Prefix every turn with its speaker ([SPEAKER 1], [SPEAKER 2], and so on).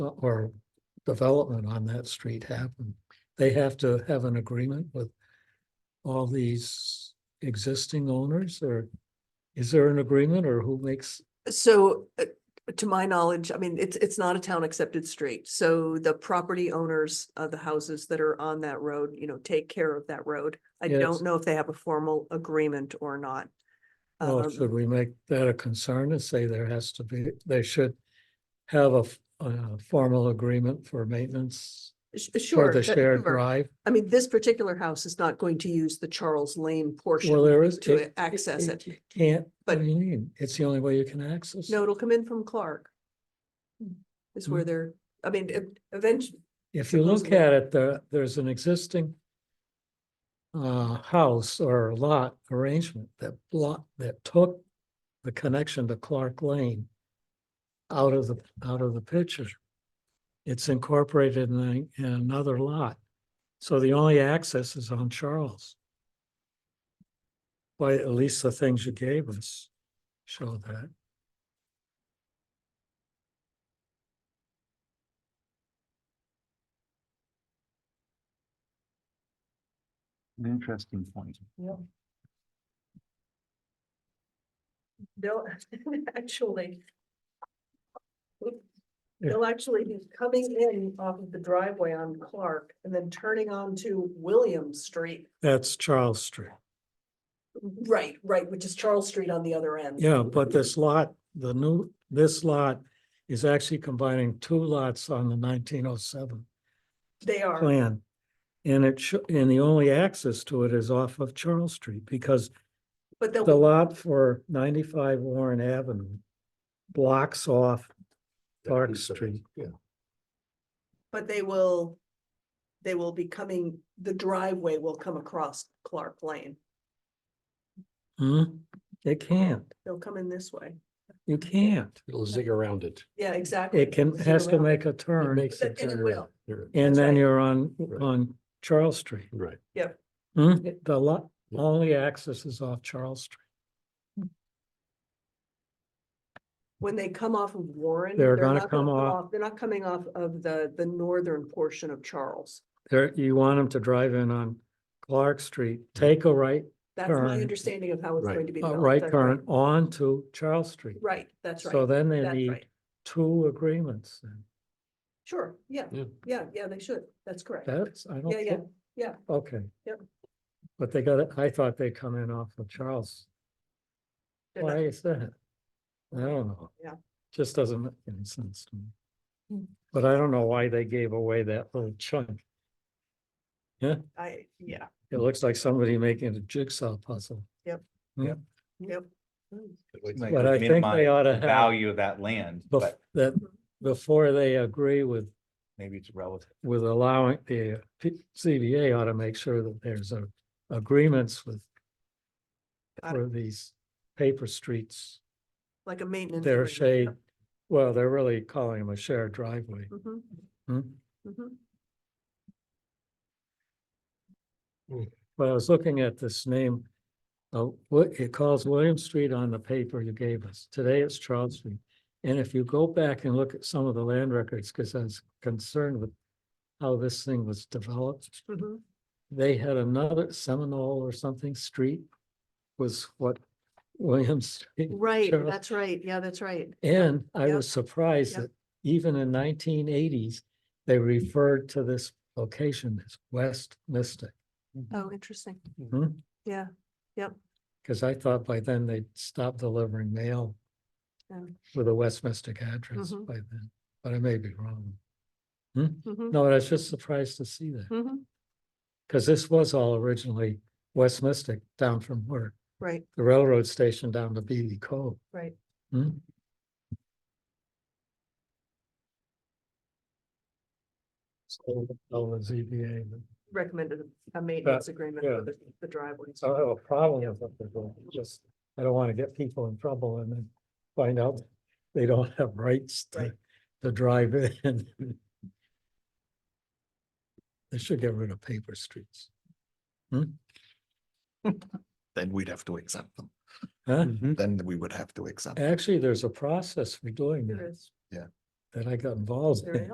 [SPEAKER 1] or development on that street happen. They have to have an agreement with all these existing owners or is there an agreement or who makes?
[SPEAKER 2] So uh, to my knowledge, I mean, it's, it's not a town accepted street. So the property owners of the houses that are on that road, you know, take care of that road. I
[SPEAKER 1] Yes.
[SPEAKER 2] don't know if they have a formal agreement or not.
[SPEAKER 1] Well,
[SPEAKER 2] Um,
[SPEAKER 1] should we make that a concern and say there has to be, they should have a, f- a formal agreement for maintenance
[SPEAKER 2] sh-
[SPEAKER 1] for
[SPEAKER 2] Sure.
[SPEAKER 1] the
[SPEAKER 2] but-
[SPEAKER 1] shared
[SPEAKER 2] sure.
[SPEAKER 1] drive?
[SPEAKER 2] I mean, this particular house is not going to use the Charles Lane
[SPEAKER 1] Well,
[SPEAKER 2] portion
[SPEAKER 1] there is.
[SPEAKER 2] to access it.
[SPEAKER 1] Can't, what
[SPEAKER 2] But-
[SPEAKER 1] do you mean? It's the only way you can access. it. Hmm.
[SPEAKER 2] No, it'll come in from Clark. Is where they're, I mean, e, ev- eventually,
[SPEAKER 1] If you look
[SPEAKER 2] supposedly.
[SPEAKER 1] at it, there, there's an existing uh, house or lot arrangement that block, that took the connection to Clark Lane out of the, out of the picture. It's incorporated in, a- in another lot. So the only access is on Charles. Why, at least the things you gave us show that.
[SPEAKER 3] An interesting point.
[SPEAKER 2] they'll actually. They'll actually be coming in off of the driveway on Clark and then turning onto William Street.
[SPEAKER 1] That's Charles Street.
[SPEAKER 2] Right, right, which is Charles Street on the other end.
[SPEAKER 1] Yeah, but this lot, the new, this lot is actually combining two lots on the nineteen oh seven
[SPEAKER 2] They are,
[SPEAKER 1] plan. And it should, and the only access to it is off of Charles Street because
[SPEAKER 2] but
[SPEAKER 1] the
[SPEAKER 2] they'll,
[SPEAKER 1] lot for ninety-five Warren Avenue blocks off Clark Street.
[SPEAKER 3] Yeah.
[SPEAKER 2] but they will. They will be coming, the driveway will come across Clark Lane.
[SPEAKER 1] Hmm? It can't,
[SPEAKER 2] They'll come in this way.
[SPEAKER 1] you can't.
[SPEAKER 3] It'll zig around it.
[SPEAKER 2] Yeah, exactly.
[SPEAKER 1] It can,
[SPEAKER 2] Zig
[SPEAKER 1] has to
[SPEAKER 2] around.
[SPEAKER 1] make a turn
[SPEAKER 3] Makes it
[SPEAKER 2] And it
[SPEAKER 3] turn
[SPEAKER 2] will.
[SPEAKER 3] around. You're
[SPEAKER 1] and
[SPEAKER 2] that's
[SPEAKER 1] then
[SPEAKER 2] right.
[SPEAKER 1] you're on,
[SPEAKER 3] Right.
[SPEAKER 1] on Charles Street.
[SPEAKER 3] Right.
[SPEAKER 1] Hmm? The lot,
[SPEAKER 3] Yeah.
[SPEAKER 1] only access is off Charles Street.
[SPEAKER 2] When they come off of Warren.
[SPEAKER 1] They're gonna
[SPEAKER 2] not
[SPEAKER 1] come off-
[SPEAKER 2] They're not coming off of the, the northern portion of Charles.
[SPEAKER 1] There, you want them to drive in on Clark Street, take a right,
[SPEAKER 2] That's my
[SPEAKER 1] Turn.
[SPEAKER 2] understanding of how it's
[SPEAKER 3] Right.
[SPEAKER 2] going to Mm-hmm. be.
[SPEAKER 1] a
[SPEAKER 2] developed.
[SPEAKER 1] Uh, right
[SPEAKER 2] That's
[SPEAKER 1] turn onto Charles Street.
[SPEAKER 2] Right, that's
[SPEAKER 1] So
[SPEAKER 2] right.
[SPEAKER 1] then they
[SPEAKER 2] That's
[SPEAKER 1] need
[SPEAKER 2] right.
[SPEAKER 1] two agreements. then.
[SPEAKER 2] Sure, yeah,
[SPEAKER 3] Yeah.
[SPEAKER 2] yeah, yeah, they should. That's correct.
[SPEAKER 1] That's, I don't.
[SPEAKER 2] Yeah, yeah,
[SPEAKER 1] think-
[SPEAKER 2] yeah.
[SPEAKER 1] Okay.
[SPEAKER 2] Yep.
[SPEAKER 1] But they got it, I thought they come in off of Charles.
[SPEAKER 2] They're not-
[SPEAKER 1] Why is that? I don't know.
[SPEAKER 2] Yeah.
[SPEAKER 1] Just doesn't make any sense to
[SPEAKER 2] Hmm.
[SPEAKER 1] me. But I don't know why they gave away that little chunk.
[SPEAKER 2] I, yeah,
[SPEAKER 1] It looks like somebody making a jigsaw puzzle.
[SPEAKER 2] yep.
[SPEAKER 4] like,
[SPEAKER 1] But
[SPEAKER 4] would
[SPEAKER 1] I think they
[SPEAKER 4] minimize
[SPEAKER 1] oughta
[SPEAKER 4] the
[SPEAKER 1] have
[SPEAKER 4] Value of that land,
[SPEAKER 1] Bef-
[SPEAKER 4] but
[SPEAKER 1] that, before they agree with
[SPEAKER 4] maybe it's relative.
[SPEAKER 1] with allowing the uh, P- CBA ought to make sure that there's a agreements with
[SPEAKER 2] I-
[SPEAKER 1] for these paper streets,
[SPEAKER 2] Like a maintenance.
[SPEAKER 1] their shade,
[SPEAKER 2] agreement,
[SPEAKER 1] well, they're really calling them a shared driveway.
[SPEAKER 2] yeah. Mhm,
[SPEAKER 1] hmm?
[SPEAKER 2] mhm.
[SPEAKER 1] But I was looking at this name, uh, what it calls William Street on the paper you gave us. Today it's Charles Street. And if you go back and look at some of the land records, because I was concerned with how this thing was developed.
[SPEAKER 2] Mhm.
[SPEAKER 1] they had another Seminole or something street was what Williams. Street-
[SPEAKER 2] Right,
[SPEAKER 1] Charles-
[SPEAKER 2] that's right. Yeah, that's right.
[SPEAKER 1] And I
[SPEAKER 2] Yep.
[SPEAKER 1] was surprised
[SPEAKER 2] Yep.
[SPEAKER 1] that even in nineteen eighties, they referred to this location as West Mystic.
[SPEAKER 2] Oh, interesting.
[SPEAKER 1] Hmm?
[SPEAKER 2] Yeah,
[SPEAKER 1] Cause I thought by then they'd stop delivering mail
[SPEAKER 2] Oh.
[SPEAKER 1] with a West Mystic address
[SPEAKER 2] Mhm.
[SPEAKER 1] by then, but I may be wrong.
[SPEAKER 2] mhm,
[SPEAKER 1] No, I was just surprised to see that,
[SPEAKER 2] mhm,
[SPEAKER 1] cause this was all originally West Mystic down from where
[SPEAKER 2] right,
[SPEAKER 1] the railroad station down to Beatty Cove.
[SPEAKER 2] right.
[SPEAKER 1] Hmm? So, oh, the ZBA,
[SPEAKER 2] Recommended a maintenance agreement
[SPEAKER 1] yeah. Uh,
[SPEAKER 2] for the, the driveways.
[SPEAKER 1] so I have a problem with what they're doing, just, I don't wanna get people in trouble and then find out they don't have rights to,
[SPEAKER 2] Right.
[SPEAKER 1] to drive in. They should get rid of paper streets, Hmm?
[SPEAKER 5] then we'd have to accept them.
[SPEAKER 1] huh?
[SPEAKER 5] Then we would have to accept. them.
[SPEAKER 1] Actually, there's a process for doing
[SPEAKER 2] There
[SPEAKER 1] that,
[SPEAKER 2] is,
[SPEAKER 1] that I got involved
[SPEAKER 2] there is.
[SPEAKER 1] in.